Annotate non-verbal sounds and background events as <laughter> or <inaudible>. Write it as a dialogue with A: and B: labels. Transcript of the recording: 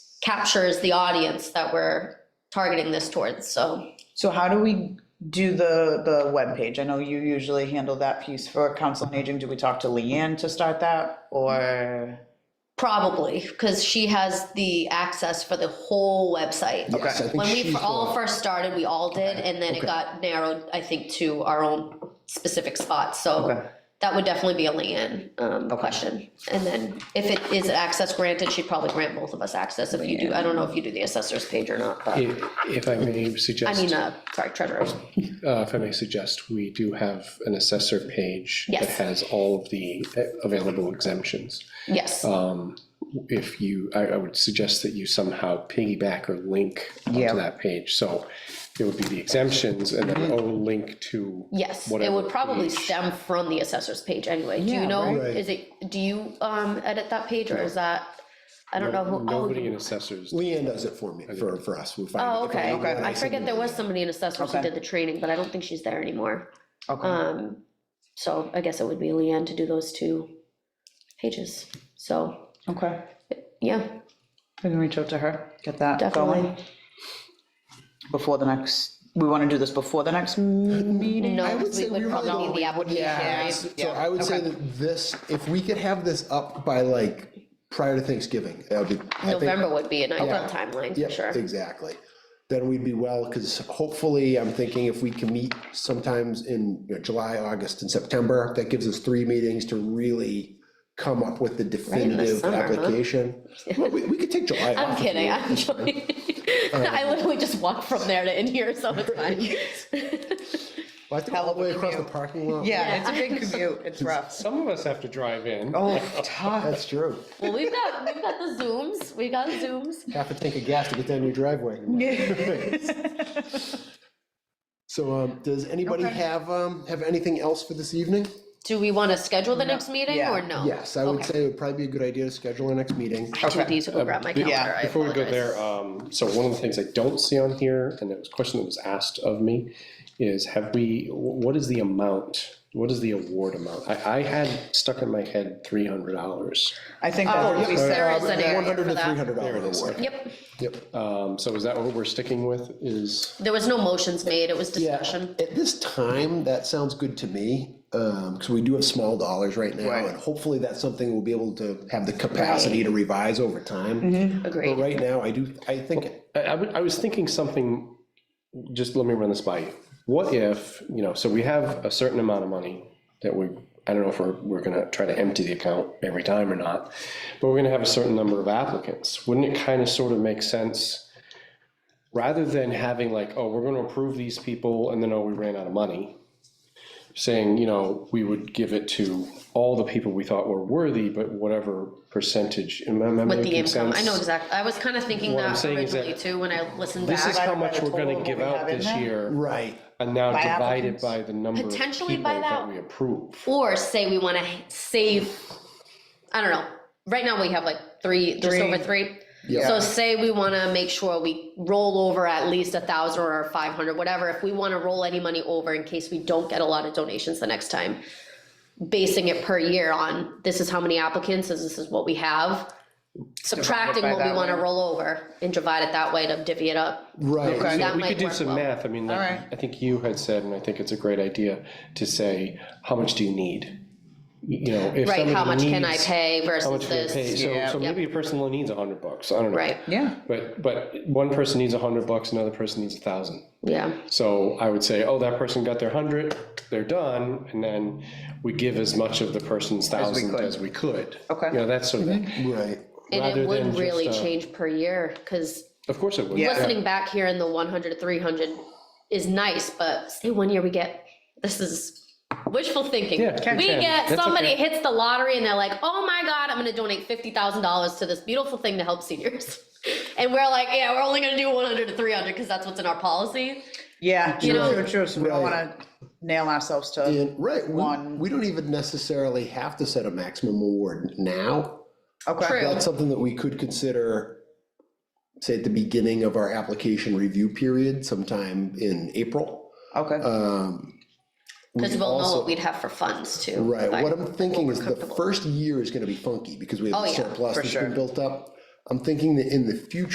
A: captures the audience that we're targeting this towards, so.
B: So how do we do the, the webpage? I know you usually handle that piece for council on aging. Do we talk to Leanne to start that or?
A: Mm-hmm. Probably, because she has the access for the whole website.
C: Yes, I think
A: When we
C: she's
A: fir- all
C: the-
A: first started, we all did, and then it
C: Okay.
A: got narrowed, I think, to our own specific spots, so that would definitely be a Leanne um, question. And then if it is access granted, she'd probably grant both of us access if you do, I don't know if you do the assessor's page or not, but,
D: If if I may
A: I mean,
D: suggest, uh,
A: uh, sorry, treasurer's.
D: if I may suggest, we do have an assessor page that
A: Yes.
D: has all of the uh, available exemptions.
A: Yes,
D: Um, If you, I, I would suggest that you somehow piggyback or link
B: Yeah.
D: onto that page. So it would be the exemptions and then a link to,
A: Mm-hmm. yes, it
D: whatever
A: would probably
D: page.
A: stem from the assessor's page anyway. Do
B: Yeah,
A: you know,
B: right.
A: is it, do you um, edit that page, or is that, I don't know who. oh,
D: nobody
A: you-
D: in assessors.
C: Leanne does it for me, for, for us. We find
A: Oh,
C: it- if I
A: okay.
C: need to
A: I
C: add
A: forget
C: something-
A: there was somebody in assessment who
B: Okay.
A: did the training, but I don't think she's there anymore.
B: Okay,
A: Um, so I guess it would be Leanne to do those two pages. So,
B: okay.
A: yeah,
B: We can reach out to her, get that
A: definitely.
B: going before the next, we want to do this before the next meeting?
A: No,
C: I would
A: we
C: say we
A: would
C: really
A: probably need the application.
C: So I would say that this, if we could have this up by like, prior to Thanksgiving, that would be. I think-
A: November would be an ideal
C: Yeah.
A: timeline
C: Yep,
A: for sure.
C: Exactly. Then we'd be well, because hopefully, I'm thinking if we can meet sometimes in you know, July, August, and September, that gives us three meetings to really come up with the definitive
A: summer, huh? <laughs>
C: application. Well, We, we could take July
A: I'm
C: off if
A: kidding,
C: we-
A: I'm joking.
C: <laughs> Oh.
A: I literally just walked from there to in here, so it's fine.
C: <laughs> Well, I think all the way across the parking lot.
B: Yeah, it's a big commute,
A: <laughs>
B: it's rough.
D: Some of us have to drive in.
B: Oh, tough.
C: <laughs> That's true.
A: Well, we've got, we've got the Zooms, we got Zooms.
C: Half a tank of gas to get down your driveway. So, um, does anybody
B: Okay.
C: have, um, have anything else for this evening?
A: Do we want to schedule the next meeting
B: Yeah.
A: or no?
C: Yes, I would
A: Okay.
C: say it would probably be a good idea to schedule our next meeting.
A: I do need to go grab my calendar,
B: yeah,
A: I
D: Before we go
A: apologize.
D: there, um, so one of the things I don't see on here, and it was a question that was asked of me, is have we, wh- what is the amount? What is the award amount? I, I had stuck in my head three hundred dollars.
B: I think that would be
A: yeah.
B: fair.
A: Oh, There is an area
C: uh, One hundred
A: for
C: to
A: that.
C: three hundred dollar
D: There it is.
C: reward.
A: Yep.
C: Yep.
D: Um, so is that what we're sticking with is,
A: There was no motions made, it was
C: Yeah,
A: discussion.
C: At this time, that sounds good to me, because we do have small dollars right now.
B: Right.
C: And hopefully that's something we'll be able to have the capacity to revise over
A: Mm-hmm.
C: time. But
A: Agreed.
C: right now, I do, I think,
D: I, I would- I was thinking something, just let me run this by you. What if, you know, so we have a certain amount of money that we, I don't know if we're, we're gonna try to empty the account every time or not, but we're gonna have a certain number of applicants. Wouldn't it kind of sort of make sense? Rather than having like, oh, we're gonna approve these people and then, oh, we ran out of money. Saying, you know, we would give it to all the people we thought were worthy, but whatever percentage, am I am I
A: With the
D: making
A: income,
D: sense?
A: I know exactly, I was kind of thinking
D: What I'm
A: that
D: saying is
A: originally
D: that
A: too, when I listened
D: This is
A: back.
B: Divided
D: how
B: by
D: much
B: the
D: we're gonna
B: total
D: give
B: we have
D: out
B: in
D: this
B: there?
D: year,
C: right,
D: and now
B: By
D: divided
B: applicants.
D: by the number of people
A: Potentially by
D: that
A: that.
D: we approve.
A: Or say we want to save, I don't know, right now we have like three, just
B: Three.
A: over three.
C: Yeah.
A: So say we want to make sure we roll over at least a thousand or five hundred, whatever, if we want to roll any money over in case we don't get a lot of donations the next time. Basing it per year on, this is how many applicants, this is what we have. Subtracting
B: by
A: what we
B: that
A: want to
B: way.
A: roll over and divide it that way to divvy it up.
C: right.
B: Okay.
D: So
A: That
D: We
A: might
D: could do
A: work
D: some
A: well.
D: math, I mean, like,
B: Alright.
D: I think you had said, and I think it's a great idea, to say, how much do you need? You know, if
A: Right, how much
D: somebody
A: can I
D: needs-
A: pay
D: How
A: versus
D: much can I pay?
A: this,
D: So,
B: Yeah.
D: so maybe a person only needs a hundred bucks, I don't know.
A: right,
B: Yeah,
D: But, but one person needs a hundred bucks, another person needs a thousand.
A: yeah,
D: So I would say, oh, that person got their hundred, they're done, and then we give as much of the person's thousand
B: could.
D: as we could.
B: Okay.
D: You know, that sort of thing.
C: Right.
A: and
D: Rather
A: it
D: than
A: would
D: just,
A: really
D: uh,
A: change per year, cause
D: Of course it would.
B: Yeah.
A: listening back here in the 100 to 300 is nice, but say one year we get, this is wishful thinking.
D: Yeah,
A: We
D: okay.
A: get,
D: That's
A: somebody
D: okay.
A: hits the lottery and they're like, oh my God, I'm gonna donate $50,000 to this beautiful thing to help seniors. <laughs> And we're like, yeah, we're only gonna do 100 to 300 because that's what's in our policy.
B: yeah,
A: You
B: true,
A: know-
B: true, true, so we don't
C: Right.
B: want to nail ourselves to,
C: And, right, we,
B: One.
C: we don't even necessarily have to set a maximum award now.
B: okay,
A: True.
C: That's something that we could consider, say, at the beginning of our application review period sometime in April.
B: okay,
C: Um, we
A: Because we'll know
C: also-
A: what we'd have for funds too.
C: Right,
A: Like,
C: what I'm thinking is the
A: comfortable.
C: first year is gonna be funky, because we
A: Oh,
C: have the
A: yeah,
C: surplus
B: for
C: that's
B: sure.
C: been built up. I'm thinking that in the future.